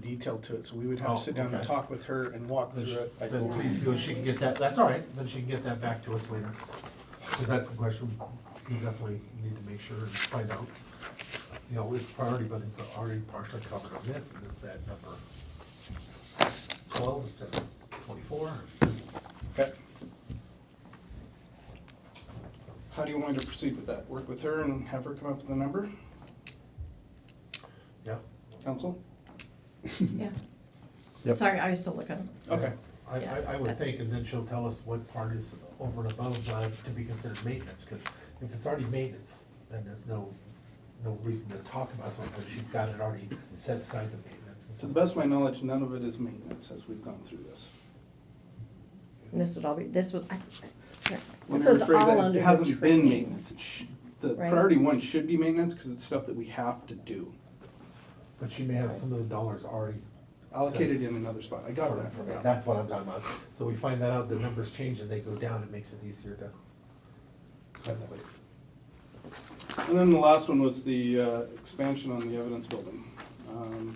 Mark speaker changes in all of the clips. Speaker 1: detail to it, so we would have
Speaker 2: Oh,
Speaker 1: to sit down and
Speaker 2: okay.
Speaker 1: talk with her and walk through
Speaker 2: Then she-
Speaker 1: it. like,
Speaker 2: Then please, go. she can get that, that's all right, then she can get that back to us later. Because that's a question we definitely need to make sure and find out. You know, it's priority, but it's already partially covered on this, and it's that number twelve instead of twenty-four.
Speaker 1: Okay. How do you want to proceed with that? Work with her and have her come up with a number,
Speaker 2: Yeah.
Speaker 1: council?
Speaker 3: Yeah.
Speaker 4: Yep.
Speaker 3: Sorry, I was still looking.
Speaker 1: Okay.
Speaker 2: I, I, I
Speaker 3: Yeah.
Speaker 2: would think, and then she'll tell us what part is over and above, uh, to be considered maintenance, because if it's already maintenance, then there's no, no reason to talk about something, because she's got it already set aside to maintenance. and
Speaker 1: To the
Speaker 2: stuff.
Speaker 1: best of my knowledge, none of it is maintenance as we've gone through this.
Speaker 3: And this would all be, this was, I- I-
Speaker 1: Let
Speaker 3: this
Speaker 1: me
Speaker 3: was
Speaker 1: rephrase that.
Speaker 3: all under
Speaker 1: It
Speaker 3: the
Speaker 1: hasn't been
Speaker 3: training.
Speaker 1: maintenance. It sh- The
Speaker 3: Right.
Speaker 1: priority one should be maintenance, because it's stuff that we have to do,
Speaker 2: But she may have some of the dollars already.
Speaker 1: allocated
Speaker 2: set
Speaker 1: in another spot. I got
Speaker 2: for-
Speaker 1: that
Speaker 2: for
Speaker 1: from
Speaker 2: that.
Speaker 1: you.
Speaker 2: That's what I'm talking about. So we find that out, the numbers change and they go down, it makes it easier to. find that later.
Speaker 1: And then the last one was the uh, expansion on the evidence building. Um,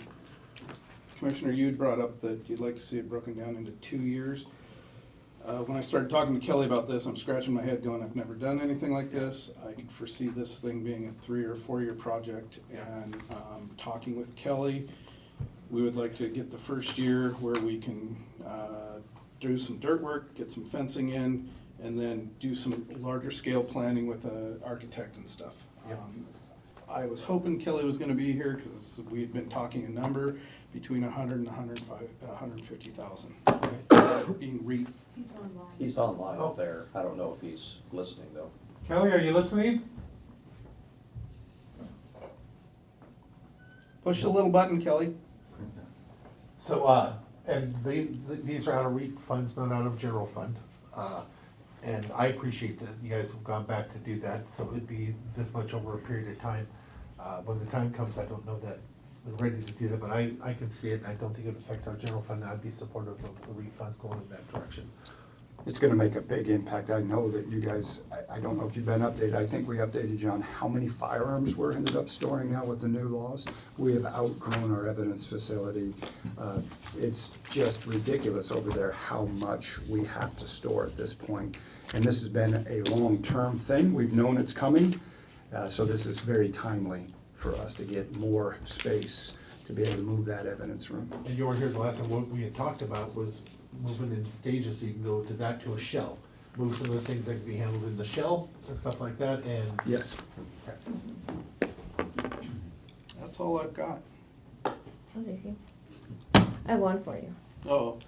Speaker 1: Commissioner, you had brought up that you'd like to see it broken down into two years. Uh, When I started talking to Kelly about this, I'm scratching my head going, I've never done anything like this. I can foresee this thing being a three or four-year project. And um, talking with Kelly, we would like to get the first year where we can uh, do some dirt work, get some fencing in, and then do some larger scale planning with an architect and stuff.
Speaker 2: Yep.
Speaker 1: Um, I was hoping Kelly was gonna be here, because we had been talking a number between a hundred and a hundred and five, a hundred and fifty thousand. Being re,
Speaker 4: He's online out there. I don't know if he's listening though.
Speaker 2: Kelly, are you listening?
Speaker 1: push the little button, Kelly.
Speaker 2: So, uh, and they, th- these are out of REIT funds, not out of general fund. Uh, And I appreciate that you guys have gone back to do that, so it'd be this much over a period of time. Uh, when the time comes, I don't know that we're ready to do that, but I, I can see it, and I don't think it'd affect our general fund, and I'd be supportive of the REIT funds going in that direction.
Speaker 5: It's gonna make a big impact. I know that you guys, I, I don't know if you've been updated. I think we updated you on how many firearms we're ended up storing now with the new laws. We have outgrown our evidence facility. Uh, It's just ridiculous over there how much we have to store at this point. And this has been a long-term thing. We've known it's coming. Uh, so this is very timely for us to get more space to be able to move that evidence room.
Speaker 2: And you were here the last time, what we had talked about was moving in stages, so you can go to that to a shell. Move some of the things that can be handled in the shell and stuff like that, and.
Speaker 5: Yes.
Speaker 2: Okay.
Speaker 1: That's all I've got.
Speaker 3: That was easy. I have one for you.
Speaker 1: Oh,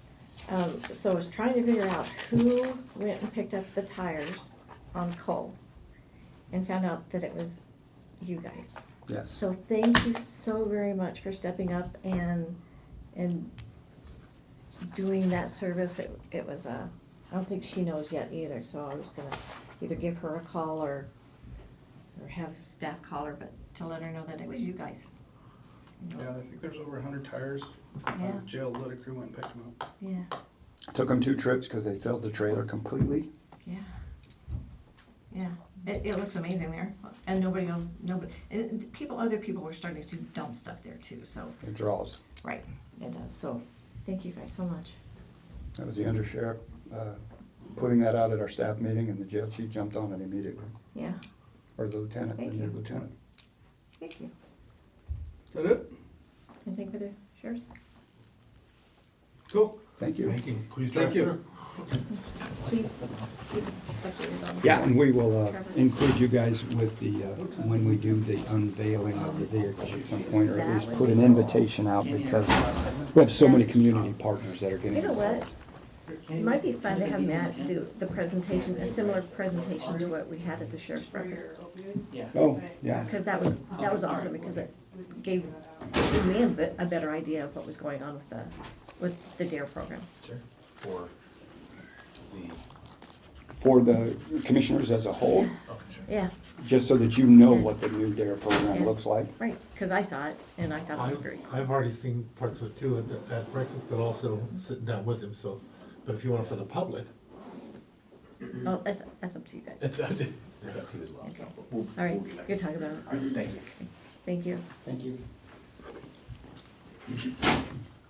Speaker 3: Um, so I was trying to figure out who went and picked up the tires on Cole and found out that it was you guys.
Speaker 5: Yes.
Speaker 3: So thank you so very much for stepping up and, and doing that service. It, it was a, I don't think she knows yet either, so I was gonna either give her a call or, or have staff call her, but to let her know that it was you guys. You know,
Speaker 1: yeah, I think there's over a hundred tires.
Speaker 3: Yeah.
Speaker 1: Uh, Jail let a crew went and picked them up.
Speaker 3: Yeah,
Speaker 5: Took them two trips because they filled the trailer completely.
Speaker 3: yeah. Yeah, it, it looks amazing there, and nobody else, nobody, and people, other people were starting to dump stuff there too, so,
Speaker 5: It draws.
Speaker 3: right, it does, so, thank you guys so much.
Speaker 5: That was the undersheriff, uh, putting that out at our staff meeting, and the jail chief jumped on it immediately,
Speaker 3: Yeah,
Speaker 5: or the lieutenant, the
Speaker 3: Thank
Speaker 5: new
Speaker 3: you.
Speaker 5: lieutenant.
Speaker 3: thank you.
Speaker 1: Is that it?
Speaker 3: Anything for the sheriff's?
Speaker 1: Cool.
Speaker 5: Thank you.
Speaker 2: Thank you, please
Speaker 1: Thank
Speaker 2: drive
Speaker 1: you.
Speaker 2: through.
Speaker 3: Please keep us updated on.
Speaker 5: Yeah, and we will uh,
Speaker 3: Trevor.
Speaker 5: include you guys with the, uh, when we do the unveiling of the vehicle at some point, or at least put an invitation out, because we have so many community partners that are getting
Speaker 3: You know what?
Speaker 5: involved.
Speaker 3: It might be fun to have Matt do the presentation, a similar presentation to what we had at the sheriff's breakfast.
Speaker 5: Oh, yeah.
Speaker 3: Because that was, that was awesome, because it gave me a bit, a better idea of what was going on with the, with the DARE program.
Speaker 6: for the,
Speaker 5: For the commissioners as a whole,
Speaker 6: okay, sure.
Speaker 3: Yeah,
Speaker 5: just so that you know what the new DARE program
Speaker 3: Yeah.
Speaker 5: looks like.
Speaker 3: right, because I saw it and I thought it was
Speaker 2: I've,
Speaker 3: great.
Speaker 2: I've already seen parts of it too at, the- at breakfast, but also sitting down with him, so, but if you want it for the public,
Speaker 3: Oh, that's, that's up to you guys.
Speaker 6: It's up to, it's up to you as well, so. we'll-
Speaker 3: All right,
Speaker 6: we'll be back.
Speaker 3: you're talking about it.
Speaker 6: All right, thank you.
Speaker 3: Thank you.
Speaker 5: Thank you.